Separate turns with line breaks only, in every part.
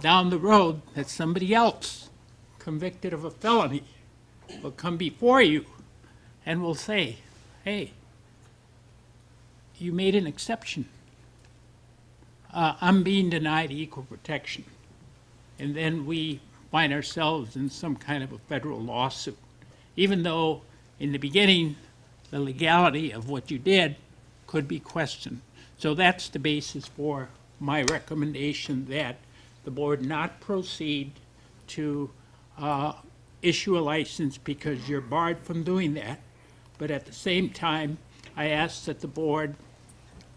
down the road that somebody else convicted of a felony will come before you and will say, hey, you made an exception. Uh, I'm being denied equal protection. And then we find ourselves in some kind of a federal lawsuit, even though in the beginning, the legality of what you did could be questioned. So that's the basis for my recommendation that the board not proceed to uh, issue a license because you're barred from doing that. But at the same time, I ask that the board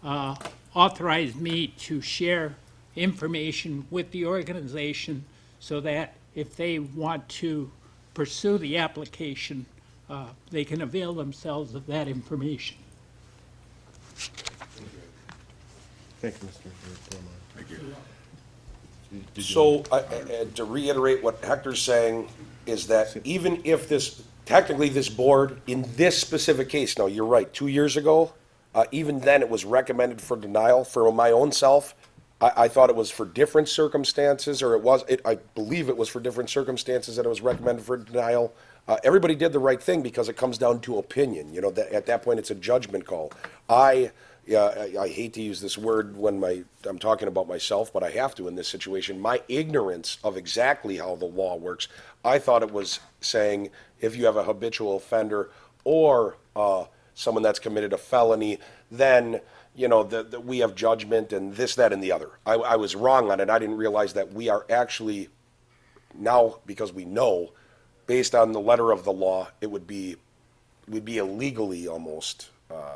uh, authorize me to share information with the organization so that if they want to pursue the application, uh, they can avail themselves of that information.
Thank you, Mr. Perdomo.
So, I- I- I- to reiterate what Hector's saying, is that even if this, technically this board, in this specific case, now, you're right, two years ago, uh, even then, it was recommended for denial for my own self. I, I thought it was for different circumstances, or it was, it, I believe it was for different circumstances that it was recommended for denial. Uh, everybody did the right thing because it comes down to opinion, you know, that, at that point, it's a judgment call. I, yeah, I, I hate to use this word when my I'm talking about myself, but I have to in this situation. My ignorance of exactly how the law works, I thought it was saying if you have a habitual offender or uh, someone that's committed a felony, then you know that that we have judgment and this, that, and the other. I, I was wrong on it. I didn't realize that we are actually now because we know, based on the letter of the law, it would be would be illegally almost uh,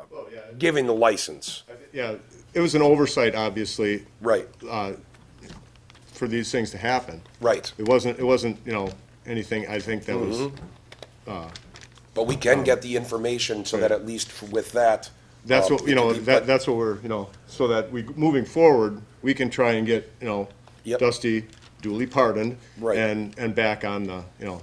giving the license.
Uh, Yeah, it was an oversight, obviously, uh,
Right,
for these things to happen.
right.
It wasn't, it wasn't, you know, anything, I think that was,
Mm-hmm. But we can get the information so that at least with that.
that's
um,
what, you know,
it can be-
that, that's what we're, you know, so that we, moving forward, we can try and get, you know,
Yep.
Dusty duly pardoned.
Right.
And, and back on the, you know,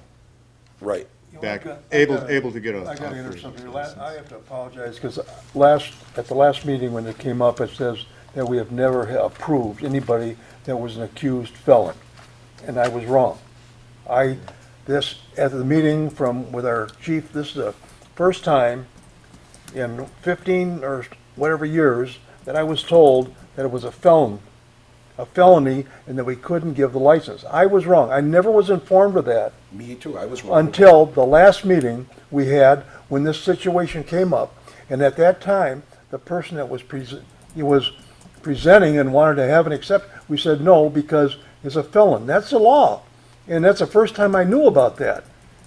Right,
You know,
back,
I've got- I've
able,
gotta-
able to get a.
I gotta interrupt
operator's
something. here.
license.
La- I have to apologize, because last, at the last meeting when it came up, it says that we have never ha- approved anybody that was an accused felon, and I was wrong. I, this, at the meeting from, with our chief, this is the first time in fifteen or whatever years that I was told that it was a felon, a felony, and that we couldn't give the license. I was wrong. I never was informed of that
me too, I was wrong.
until the last meeting we had when this situation came up. And at that time, the person that was present, he was presenting and wanted to have an accept, we said no because it's a felon. That's the law. And that's the first time I knew about that.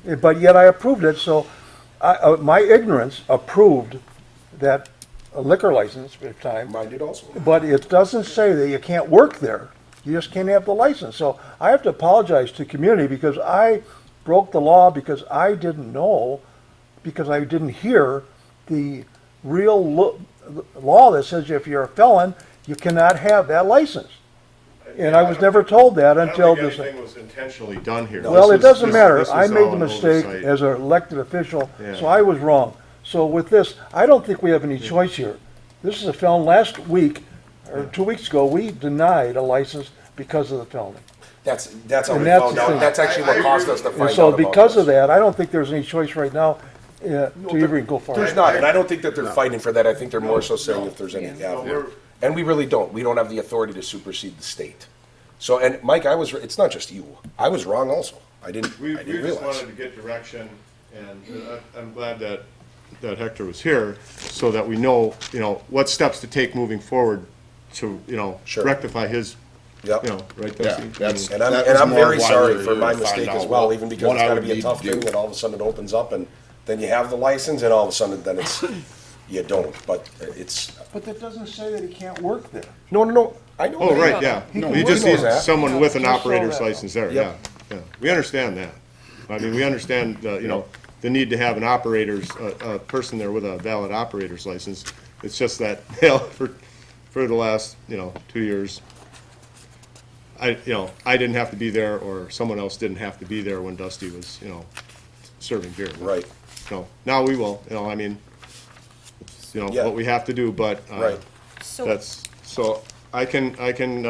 Eh, But yet I approved it, so I, uh, my ignorance approved that liquor license at the time.
Mine did also.
But it doesn't say that you can't work there. You just can't have the license. So I have to apologize to the community because I broke the law because I didn't know, because I didn't hear the real lo- law that says if you're a felon, you cannot have that license. And I was never told that
I don't
until
think
this.
anything was intentionally done here.
Well,
This
it
is-
doesn't
this-
matter.
this
I
is
made
all
the
an
mistake
oversight.
as an elected official, so
Yeah.
I was wrong. So with this, I don't think we have any choice here. This is a felon. Last week, or two weeks ago, we denied a license because of the felony.
That's, that's how
And
we
that's
found
the
out,
thing.
that's actually what caused us to find
And
out
so
about
because of
this.
that, I don't think there's any choice right now uh, to even go forward.
There's not, and I don't think that they're fighting for that, I think they're more so saying if there's any avenue. And we really don't, we don't have the authority to supersede the state. So, and Mike, I was, it's not just you, I was wrong also, I didn't,
We,
I
we
didn't
just
realize.
wanted to get direction, and uh, I- I'm glad that, that Hector was here, so that we know, you know, what steps to take moving forward to, you know,
Sure.
rectify his, you
Yep.
know, right,
Yeah,
Dusty?
that's-
And I'm,
that
and
was
I'm
more
very
why
sorry
we're
for
here
my
to find
mistake as
out
well,
what-
even because
what
it's
I
gotta
would
be a
need
tough
to do.
thing, and all of a sudden it opens up, and then you have the license, and all of a sudden then it's, you don't, but it's,
But that doesn't say that he can't work there.
no, no, no, I know.
Oh,
that.
right, yeah.
He can
You just
work
need
on that.
someone with an
Just so
operator's
that-
license there, yeah,
Yep.
yeah. We understand that. I mean, we understand, the, you know, the need to have an operator's, a, a person there with a valid operator's license. It's just that, you know, for, for the last, you know, two years, I, you know, I didn't have to be there, or someone else didn't have to be there when Dusty was, you know, serving beer.
Right.
No, now we will, you know, I mean, it's, you know,
Yeah.
what we have to do, but. uh,
Right.
So
That's, so I can, I can, uh,